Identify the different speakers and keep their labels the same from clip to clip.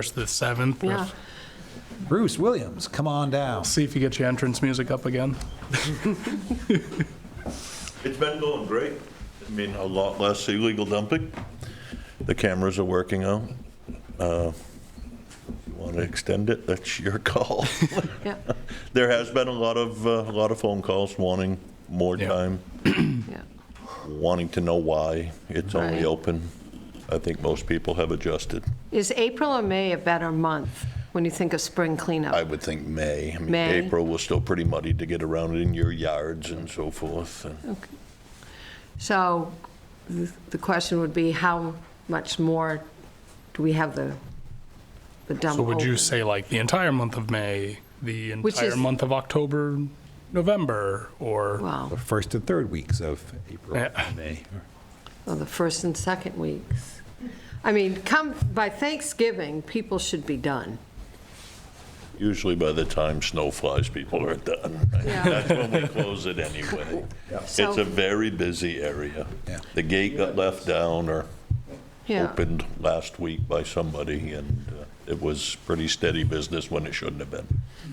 Speaker 1: 1st to the 7th.
Speaker 2: Yeah.
Speaker 3: Bruce Williams, come on down.
Speaker 1: See if you get your entrance music up again.
Speaker 4: It's been going great. I mean, a lot less illegal dumping. The cameras are working out. Uh, If you want to extend it, that's your call.
Speaker 2: Yeah,
Speaker 4: There has been a lot of, uh, a lot of phone calls wanting more
Speaker 1: Yeah.
Speaker 4: time,
Speaker 2: yeah,
Speaker 4: wanting to know why it's only
Speaker 2: Right.
Speaker 4: open. I think most people have adjusted.
Speaker 2: Is April or May a better month when you think of spring
Speaker 4: I
Speaker 2: cleanup?
Speaker 4: would think May. I mean,
Speaker 2: May.
Speaker 4: April was still pretty muddy to get around in your yards and so forth. and-
Speaker 2: So th- the question would be, how much more do we have the, the dump
Speaker 1: So would you
Speaker 2: open?
Speaker 1: say like the entire month of May, the
Speaker 2: Which
Speaker 1: entire
Speaker 2: is-
Speaker 1: month of October, November, or?
Speaker 2: Wow,
Speaker 3: The first and third weeks of April
Speaker 1: Yeah.
Speaker 3: and May.
Speaker 2: well, the first and second weeks. I mean, come, by Thanksgiving, people should be done.
Speaker 4: Usually by the time snow flies, people are done.
Speaker 2: Yeah.
Speaker 4: That's when we close it anyway. It's
Speaker 2: So-
Speaker 4: a very busy area.
Speaker 3: Yeah.
Speaker 4: The gate got left down or
Speaker 2: Yeah.
Speaker 4: opened last week by somebody, and uh, it was pretty steady business when it shouldn't have been.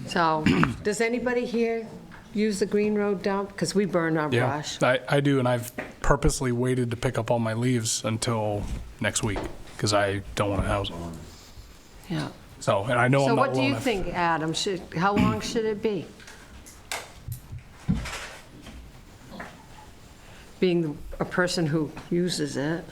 Speaker 2: So, does anybody here use the Green Road dump? Because we burn our
Speaker 1: Yeah,
Speaker 2: brush.
Speaker 1: I, I do, and I've purposely waited to pick up all my leaves until next week, because I don't want to house them.
Speaker 2: Yeah.
Speaker 1: So, and I know
Speaker 2: So
Speaker 1: I'm not
Speaker 2: what do
Speaker 1: alone.
Speaker 2: you
Speaker 1: I've-
Speaker 2: think, Adam? Should, how long should it be? Being a person who uses it,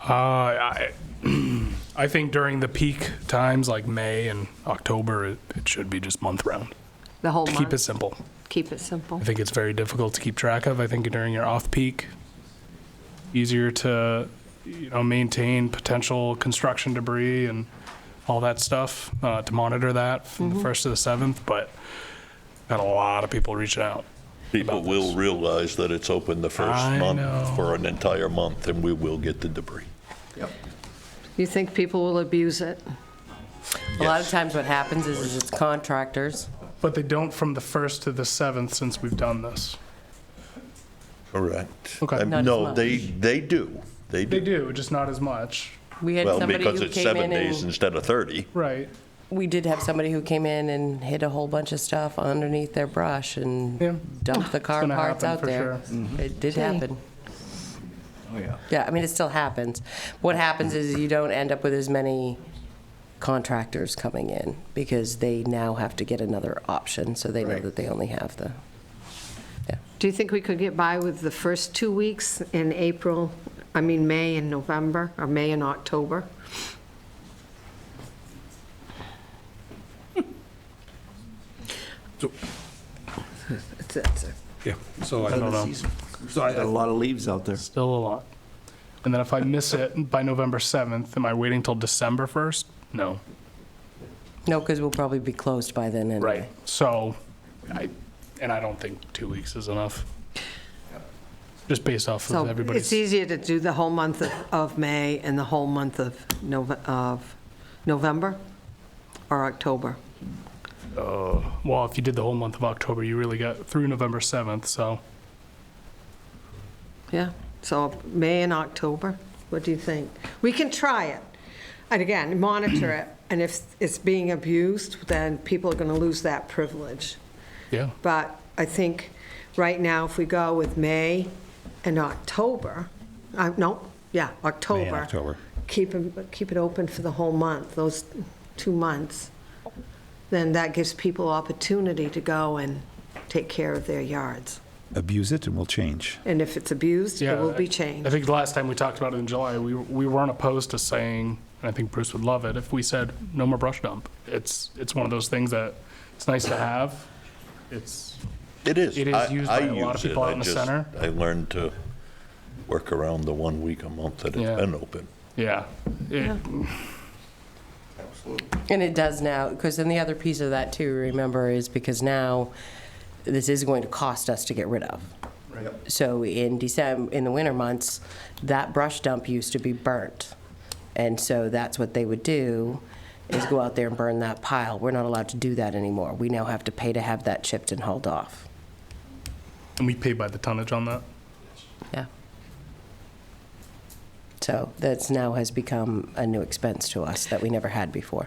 Speaker 1: Uh, I, I think during the peak times, like May and October, it it should be just month-round,
Speaker 2: the whole
Speaker 1: to keep it
Speaker 2: month?
Speaker 1: simple.
Speaker 2: Keep it simple.
Speaker 1: I think it's very difficult to keep track of. I think during your off peak, easier to you know maintain potential construction debris and all that stuff uh, to monitor that from the first to the seventh. But got a lot of people reaching out.
Speaker 4: People
Speaker 1: About
Speaker 4: will
Speaker 1: this.
Speaker 4: realize that it's open the first
Speaker 1: I know.
Speaker 4: month for an entire month, and we will get the debris.
Speaker 2: You think people will abuse it?
Speaker 5: A lot of times what happens is is it's contractors.
Speaker 1: But they don't from the first to the seventh since we've done this.
Speaker 4: Correct.
Speaker 1: Okay.
Speaker 4: Um,
Speaker 5: Not as
Speaker 4: No,
Speaker 5: much.
Speaker 4: they, they do. They
Speaker 1: They
Speaker 4: do.
Speaker 1: do, just not as much.
Speaker 5: We had
Speaker 4: Well,
Speaker 5: somebody
Speaker 4: because
Speaker 5: who
Speaker 4: it's
Speaker 5: came
Speaker 4: seven
Speaker 5: in
Speaker 4: days
Speaker 5: and,
Speaker 4: instead of 30.
Speaker 1: Right.
Speaker 5: we did have somebody who came in and hid a whole bunch of stuff underneath their brush
Speaker 1: Yeah.
Speaker 5: and dumped the car
Speaker 1: gonna
Speaker 5: parts
Speaker 1: happen
Speaker 5: out
Speaker 1: for Mm-hmm.
Speaker 5: there. It did
Speaker 2: Gee.
Speaker 5: happen. Oh, yeah. Yeah, I mean, it still happens. What happens is you don't end up with as many contractors coming in because they now have to get another option, so they know that they only have the,
Speaker 2: Do you think we could get by with the first two weeks in April, I mean, May and November, or May and October?
Speaker 6: So-
Speaker 2: It's- it's a-
Speaker 6: Yeah, so I
Speaker 1: don't know.
Speaker 6: So I got a lot of leaves out there.
Speaker 1: Still a lot. And then if I miss it by November seventh, am I waiting till December first? No.
Speaker 5: no, because we'll probably be closed by then anyway.
Speaker 1: Right. So, I, and I don't think two weeks is enough. Just based off
Speaker 2: So
Speaker 1: of
Speaker 2: it's
Speaker 1: everybody's.
Speaker 2: easier to do the whole month of- of May and the whole month of Nov- of November or October?
Speaker 1: Well, if you did the whole month of October, you really got through November 7th, so
Speaker 2: Yeah, so May and October, what do you think? We can try it, and again, monitor it, and if it's being abused, then people are going to lose that privilege.
Speaker 1: yeah.
Speaker 2: But I think right now, if we go with May and October, uh, no, yeah, October.
Speaker 3: October.
Speaker 2: Keep, 'em- keep it open for the whole month, those two months, then that gives people opportunity to go and take care of their yards.
Speaker 3: Abuse it and we'll change.
Speaker 2: And if it's abused,
Speaker 1: Yeah.
Speaker 2: it will
Speaker 1: I-
Speaker 2: be
Speaker 1: I
Speaker 2: changed.
Speaker 1: think the last time we talked about it in July, we, we weren't opposed to saying, and I think Bruce would love it, if we said, no more brush dump. It's, it's one of those things that, it's nice to have. It's,
Speaker 4: It is.
Speaker 1: It is
Speaker 4: I-
Speaker 1: used
Speaker 4: I
Speaker 1: by a lot of
Speaker 4: use it.
Speaker 1: people out
Speaker 4: I
Speaker 1: in the
Speaker 4: just-
Speaker 1: center.
Speaker 4: I learned to work around the one week a month that
Speaker 1: Yeah.
Speaker 4: it's been open.
Speaker 1: yeah. It-
Speaker 5: And it does now, because then the other piece of that too, remember, is because now this is going to cost us to get rid of. So in December, in the winter months, that brush dump used to be burnt. And so that's what they would do, is go out there and burn that pile. We're not allowed to do that anymore. We now have to pay to have that chipped and hauled off.
Speaker 1: And we pay by the tonnage on that.
Speaker 5: Yeah. So that's now has become a new expense to us that we never had before.